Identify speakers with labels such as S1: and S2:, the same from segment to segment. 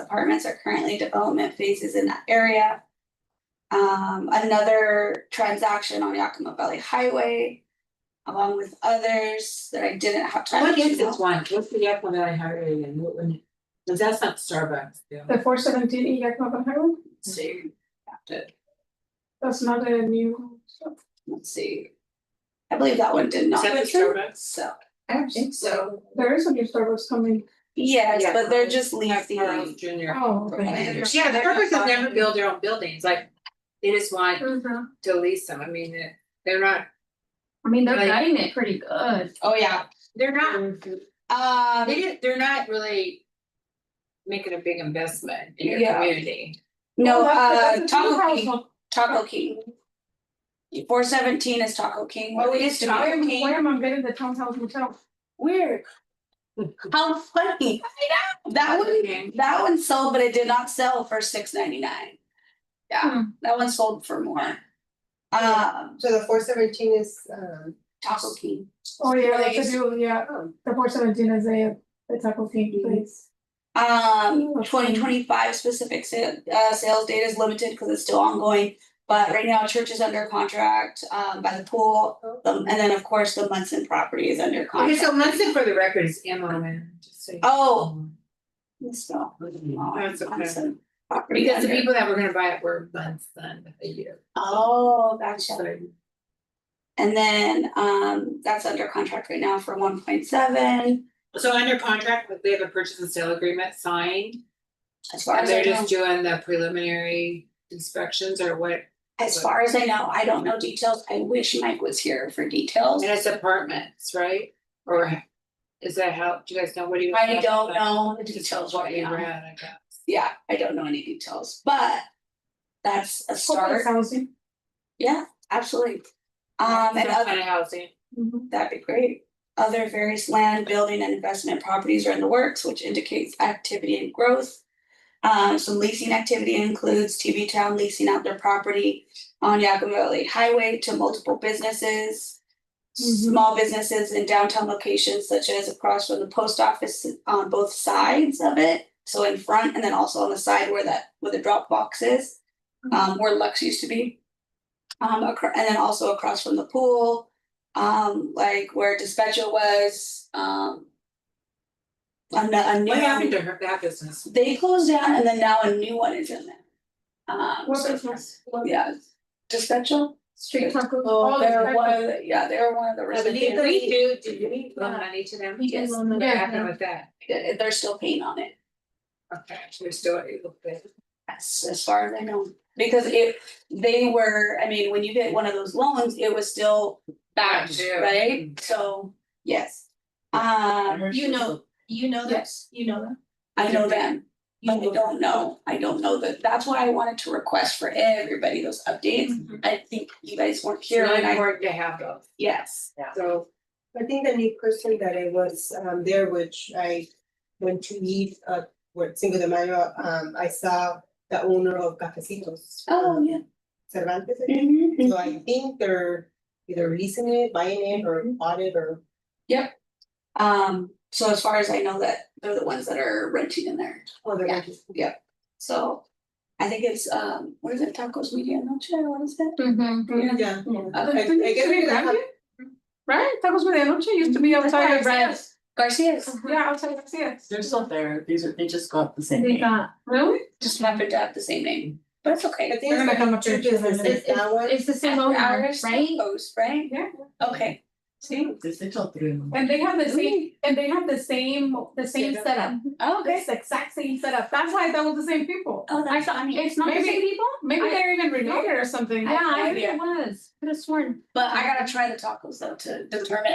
S1: apartments are currently development phases in that area. Um, another transaction on Yakima Valley Highway, along with others that I didn't have time to.
S2: What is this
S1: note.
S2: one? What's the Yakima Valley Highway again? What one? Cause that's not Starbucks, yeah.
S3: The four seventeen E Yakima Valley Highway,
S1: Let's see, Got it.
S3: that's not a new.
S1: let's see. I believe that one did not. So,
S4: I don't think so.
S3: There is a new Starbucks coming.
S1: yes,
S4: Yeah.
S1: but they're just leasing.
S2: Junior.
S3: Oh,
S1: okay.
S4: Yeah, they're
S2: Starbucks
S4: not
S2: has never
S4: buying-
S2: built their own buildings, like, they just want
S3: Mhm.
S2: to lease them, I mean, it- they're not,
S4: I mean, they're
S2: Like-
S4: gutting it pretty good.
S1: Oh, yeah,
S2: they're not, they
S1: um,
S2: didn't, they're not really. Making a big investment in your
S1: Yeah.
S2: community.
S1: no,
S3: Oh, that's-
S1: uh,
S3: that's a new
S1: Taco
S3: house
S1: King,
S3: on-
S1: Taco King. Four seventeen is Taco King. what
S2: Oh, it
S1: they
S2: is
S1: used to be-
S2: Taco
S3: Where am- Where am I getting the townhouse motel?
S1: Weird. How funny. That
S2: Okay.
S1: one, that one sold, but it did not sell for six ninety nine. Yeah,
S3: Hmm.
S1: that one sold for more. Um,
S5: So the four seventeen is, um, oh,
S1: Taco King.
S3: Oh, yeah,
S1: Really?
S3: that's a new, yeah, the four seventeen is a, the Taco King
S1: Mhm.
S3: place.
S1: Um, twenty twenty-five specific sa- uh, sales data is limited because it's still ongoing. But right now, church is under contract, um, by the pool, um, and then of course, the Munson property is under
S2: Oh. Okay, so
S1: contract.
S2: Munson for the record is M O N, just so you.
S1: Oh, it's not,
S2: That's okay.
S1: Munson property
S2: Because the
S1: under-
S2: people that were gonna buy it were Munson a year.
S1: Oh, gotcha.
S2: So-
S1: And then, um, that's under contract right now for one point seven,
S2: So under contract, but they have a purchase and sale agreement signed,
S1: as far
S2: and
S1: as I
S2: they're
S1: know.
S2: just doing the preliminary inspections or what,
S1: As far as I know, I don't know details. I wish Mike was here for details.
S2: and it's apartments, right? Or is that how, do you guys know, what do you?
S1: I don't know the details
S2: What
S1: right
S2: you read,
S1: now.
S2: I guess.
S1: Yeah, I don't know any details, but that's a
S3: Corporate
S1: start.
S3: housing.
S1: Yeah, absolutely. Um, and
S2: Some
S1: other,
S2: kind of housing,
S3: Mhm.
S1: that'd be great. Other various land, building and investment properties are in the works, which indicates activity and growth. Um, some leasing activity includes TV Town leasing out their property on Yakima Valley Highway to multiple businesses.
S3: Mhm.
S1: Small businesses in downtown locations such as across from the post office on both sides of it. So in front and then also on the side where that, where the drop box is, um, where Lux used to be. Um, acro- and then also across from the pool, um, like where Despecho was, um. A, no- a new.
S2: what happened to her, that business?
S1: They closed down and then now a new one is in there. Um,
S3: What
S1: so-
S3: business?
S1: yeah, dispatcher.
S3: Street taco.
S1: Oh,
S3: Oh,
S1: they're
S3: that's
S1: one
S3: right.
S1: of the, yeah, they're one of the.
S2: Did
S1: residents.
S2: we do, did we loan money to them?
S3: We did loan
S2: What
S3: money.
S2: happened with that?
S1: They- They're still paying on it,
S2: Okay, we're still able to.
S1: as, as far as I know, because if they were, I mean, when you get one of those loans, it was still backed,
S2: Backed, yeah.
S1: right? So, yes. Um,
S4: You know, you know that,
S1: yes,
S4: you know that.
S1: I know them.
S4: You
S1: But I don't know, I don't know that, that's why I wanted to request for everybody those updates.
S3: Mhm.
S1: I think you guys weren't
S2: Mm-hmm. It's
S1: here
S2: really
S1: and I,
S2: important to have those,
S1: yes,
S2: so.
S5: I think the new person that I was, um, there, which I went to meet, uh, with Cinco de Mayo, um, I saw the owner of Cafecitos. um,
S1: oh, yeah.
S5: Cervantes, I think.
S1: Mhm.
S5: so I think they're either leasing it, buying it, or bought it, or
S1: Um, so as far as I know that they're the ones that are renting in there,
S5: other.
S1: Yeah. so. I think it's, um, what is it, Tacos Media Noche, what is that? Yeah.
S5: Yeah.
S1: Uh,
S5: I- I guess we have-
S3: Right, Tacos Medianoche used to be outside of Reds.
S1: Garcia's
S3: Yeah, outside of Reds.
S6: They're still there, these are, they just got the same
S4: They
S6: name.
S4: got,
S3: Really?
S1: just happened to have the same name, but it's
S5: I
S1: okay.
S5: think
S3: They're gonna
S5: it's
S3: come up
S5: like two
S3: here.
S5: businesses,
S4: it's,
S5: that one,
S4: it's, it's the same owner,
S1: Ours,
S4: right?
S1: Post, right?
S3: Yeah.
S1: Okay.
S3: See,
S6: There's still three of them.
S3: and they have the same, and they have the same, the same
S2: Yeah.
S3: setup,
S1: Oh,
S3: it's the exact same setup, that's why that was the same people.
S1: Oh, that's funny.
S4: It's not the
S3: Maybe-
S4: same people?
S3: Maybe
S4: I-
S3: they're even related or something.
S4: Yeah, I think
S1: idea.
S4: it was, could have sworn.
S1: But I gotta try the tacos though to determine.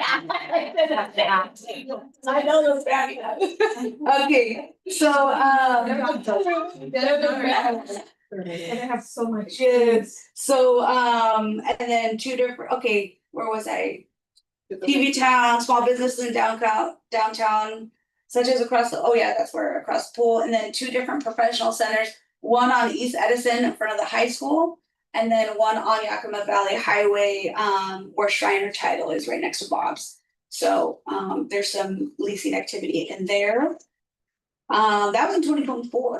S4: I
S1: those bad Okay, so, um.
S3: And they have so much.
S1: Yes. So, um, and then two different, okay, where was I? TV town, small businesses in downtown, downtown, such as across the, oh yeah, that's where across the pool, and then two different professional centers. One on East Edison in front of the high school, and then one on Yakima Valley Highway, um, where Shriner Title is right next to Bob's. So, um, there's some leasing activity in there. Um, that was in twenty twenty four,